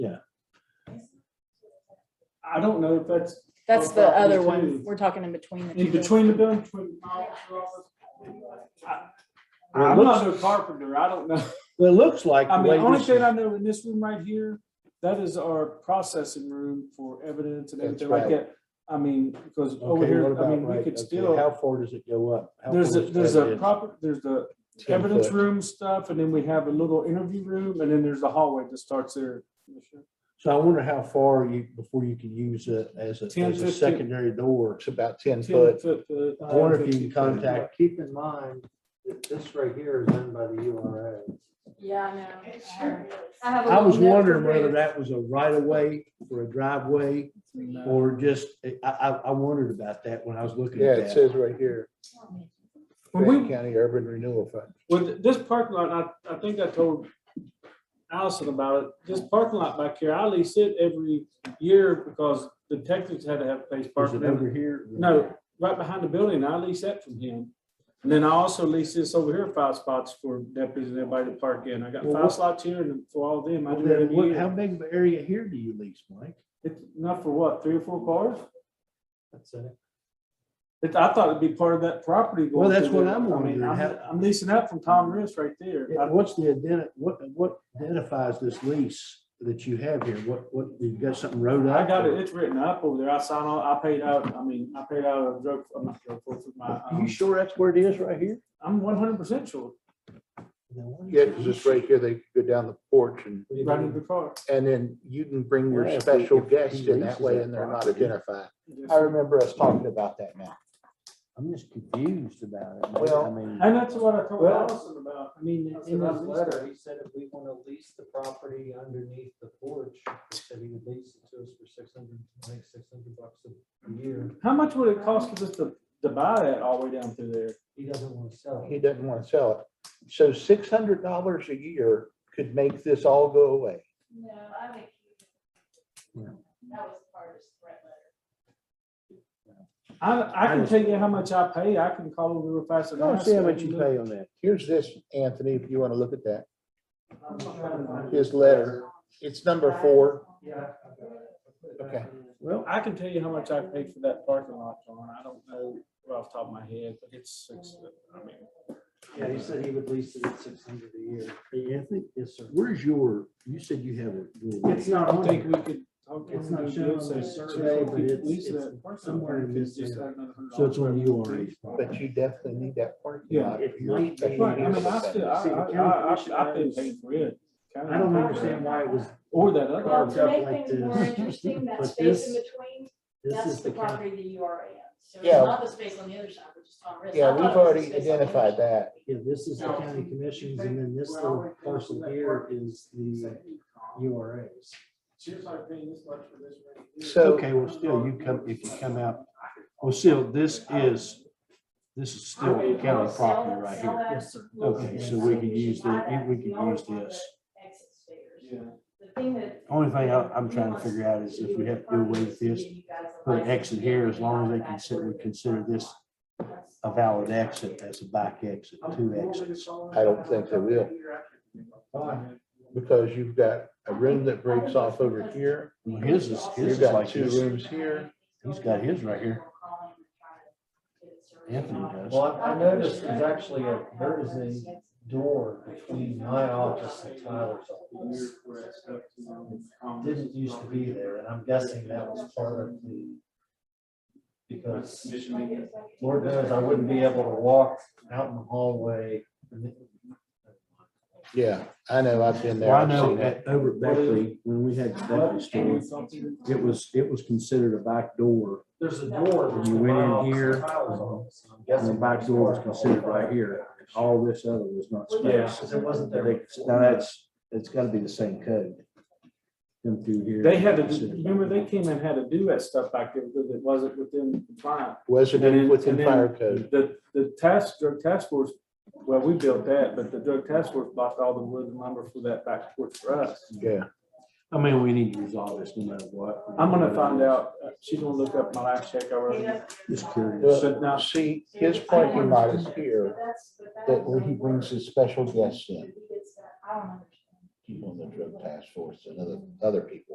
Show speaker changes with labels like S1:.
S1: I don't know if that's
S2: That's
S1: Oh,
S2: the
S1: property
S2: other
S1: too.
S2: one. We're talking in between the two.
S1: in between the building, between the office. I-
S3: Well, it
S1: I'm not
S3: looks,
S1: no carpenter, I don't know.
S3: well, it looks like the
S1: I mean,
S3: way
S1: the only
S3: this
S1: thing
S3: is-
S1: I know in this room right here, that is our processing room for evidence and
S3: That's
S1: everything like
S3: right.
S1: that. I mean, because over
S3: Okay, what
S1: here, I
S3: about
S1: mean, we
S3: right,
S1: could
S3: okay,
S1: still,
S3: How far does it go up? How
S1: there's a,
S3: far does
S1: there's
S3: that
S1: a
S3: is?
S1: proper, there's the
S3: Ten
S1: evidence
S3: foot.
S1: room stuff, and then we have a little interview room, and then there's the hallway that starts there.
S3: So I wonder how far you, before you can use it as a,
S1: 10,
S3: as a
S1: 15.
S3: secondary door.
S4: It's about
S1: Ten
S4: ten foot.
S1: foot, uh,
S3: I wonder if you can
S1: 15 foot.
S3: contact
S5: Keep in mind that this right here is owned by the URA.
S2: Yeah, I know. I have a
S3: I was
S2: little note for
S3: wondering whether
S2: Bruce.
S3: that was a right of way or a driveway or just, I, I, I wondered about that when I was looking
S4: Yeah,
S3: at
S4: it
S3: that.
S4: says right here,
S1: When we-
S4: Grant County Urban Renewal Fund.
S1: With this parking lot, I, I think I told Allison about it. This parking lot back here, I lease it every year because the detectives had to have place
S3: Is
S1: parking.
S3: it
S1: in it.
S3: over here?
S1: No, right behind the building, I lease that from him. And then I also lease this over here, five spots for deputies and everybody to park in. I got
S3: Well,
S1: five
S3: what-
S1: slots here and for all of them, I
S3: Well,
S1: do it
S3: then
S1: every
S3: what- How
S1: year.
S3: big of an area here do you lease, Mike?
S1: It's enough for what, three or four cars?
S5: That's it.
S1: It, I thought it'd be part of that property. going
S3: Well, that's
S1: through
S3: what
S1: there.
S3: I'm
S1: I mean,
S3: wondering,
S1: I'm-
S3: how-
S1: I'm leasing that from Tom Riss right there.
S3: Yeah, What's the identi, what, what identifies this lease that you have here? What, what, you've got something wrote up?
S1: I got it, it's written up over there, I signed on, I paid out, I mean, I paid out a drug, I'm not drug, for my,
S3: You
S1: um,
S3: sure that's where it is right here?
S1: I'm one hundred percent sure,
S4: Yeah, because it's right here, they go down the porch and,
S1: right in the car.
S4: and then you can bring
S3: Yeah,
S4: your
S3: if
S4: special
S3: he- if he
S4: guest in
S3: leases
S4: that way
S3: that
S4: and they're not
S3: property.
S4: identified. I remember us talking about that now.
S3: I'm just confused about it. man.
S4: Well-
S3: I mean,
S1: And that's what I told
S5: Well-
S1: Allison about,
S5: I mean,
S1: That's
S5: in
S1: what I
S5: his
S1: was
S5: letter, he said if we want to lease the property underneath the porch, he said he would lease it to us for six hundred, I think six hundred bucks a year.
S1: how much would it cost us to, to buy that all the way down through there?
S5: He doesn't want to sell
S4: He
S5: it.
S4: doesn't want to sell it. So six hundred dollars a year could make this all go away.
S6: No, I think.
S3: Yeah.
S6: That was the hardest threat letter.
S1: I, I can
S3: I-
S1: tell you how much I pay, I can call over real fast.
S3: I
S1: and
S3: don't
S1: ask
S3: see how
S1: them.
S3: much you pay on that.
S4: Here's this, Anthony, if you want to look at that.
S5: I'm just trying to find it.
S4: His letter, it's number four.
S5: Yeah. I've got it. I put it back
S4: Okay.
S5: in there.
S3: Well,
S1: I can tell you how much I paid for that parking lot, John, I don't know right off the top of my head, but it's, it's, I mean.
S5: Yeah, he said he would lease it at six hundred a year.
S3: hey, Anthony, yes, sir. Where's your, you said you have a. your-
S5: It's not
S1: I
S5: on
S1: think
S5: here.
S1: we could. okay,
S5: It's not
S1: we
S5: shown
S1: could
S5: on
S1: say
S5: the
S1: sure,
S5: survey,
S1: we
S5: but
S1: could uh,
S5: it's-
S1: lease
S5: it's
S1: that parcel
S5: somewhere in
S1: back, it's just
S5: there.
S1: add another hundred
S3: So it's
S1: dollars.
S3: on URA's
S4: But
S3: property.
S4: you definitely need that parking
S1: Yeah.
S4: lot.
S5: It might be-
S1: Right, I mean, I still, I,
S5: See, the county
S1: I, I,
S5: commission
S1: I, I've been
S5: has-
S1: paying for it.
S3: I don't understand why it was,
S1: Or that
S6: Well,
S1: other.
S3: Garbage.
S6: to
S3: up
S6: make
S3: like
S6: things more
S3: this.
S6: interesting, that
S3: But
S6: space in
S3: this-
S6: between,
S3: this
S6: that's
S3: is
S6: the
S3: the county.
S6: property that you are in. So it's
S4: Yeah.
S6: not the space on the other side, which is Tom Riss. I
S4: Yeah,
S6: thought
S4: we've
S6: it was the
S4: already
S6: space on the other
S4: identified
S6: side.
S4: that.
S3: Yeah, this is the county commissions and then this little parcel here is the URA's.
S4: So-
S3: Okay, well, still, you come, if you come out, well, still, this is, this is still county property right
S6: Sell
S3: here.
S6: that.
S5: Yes, sir.
S3: Okay, so we can use the, we can use this.
S6: Exit stairs.
S1: Yeah.
S6: The thing that.
S3: Only thing I- I'm trying to figure out is if we have to do away with this, put an exit here, as long as they consider, we consider this a valid exit, that's a back exit, two exits.
S4: I don't think they will. Because you've got a room that breaks off over here.
S3: Well, his is, his
S4: You've
S3: is
S4: got
S3: like
S4: two
S3: this.
S4: rooms here.
S3: He's got his right here. Anthony
S5: Well,
S3: does.
S5: I I noticed there's actually a, there is a door between my office and Tyler's office. Didn't used to be there, and I'm guessing that was part of the, because Lord knows I wouldn't be able to walk out in the hallway.
S4: Yeah, I know, I've been
S3: Well,
S4: there.
S3: I
S4: I've
S3: know
S4: seen that.
S3: at, over at Beckley, when we had the Beckley store, it was, it was considered a back door.
S5: There's a door.
S3: You
S5: between
S3: went
S5: my
S3: in
S5: office
S3: here,
S5: and Tyler's office, and I'm
S3: And the
S5: guessing
S3: back
S5: that's
S3: door was
S5: part of the
S3: considered
S5: whole
S3: right
S5: thing.
S3: here. All this other was not
S5: Yeah,
S3: space.
S5: because it wasn't there.
S3: Now, that's, it's gotta be the same code. Come through here.
S1: They had to, remember, they came and had to do that stuff back there because it wasn't within compliance.
S4: Was
S1: And then-
S4: it within
S1: and then
S4: fire code?
S1: The, the task, drug task force, well, we built that, but the drug task force blocked all the wood and lumber for that back porch for us.
S4: Yeah,
S3: I mean, we need to resolve this no matter what.
S1: I'm gonna find out, uh, she's gonna look up my last check I wrote.
S3: Just curious.
S4: Well,
S1: Should not,
S4: see, his parking lot is here, that where he brings his special guests in.
S6: I don't understand.
S4: People on the drug task force and other, other people.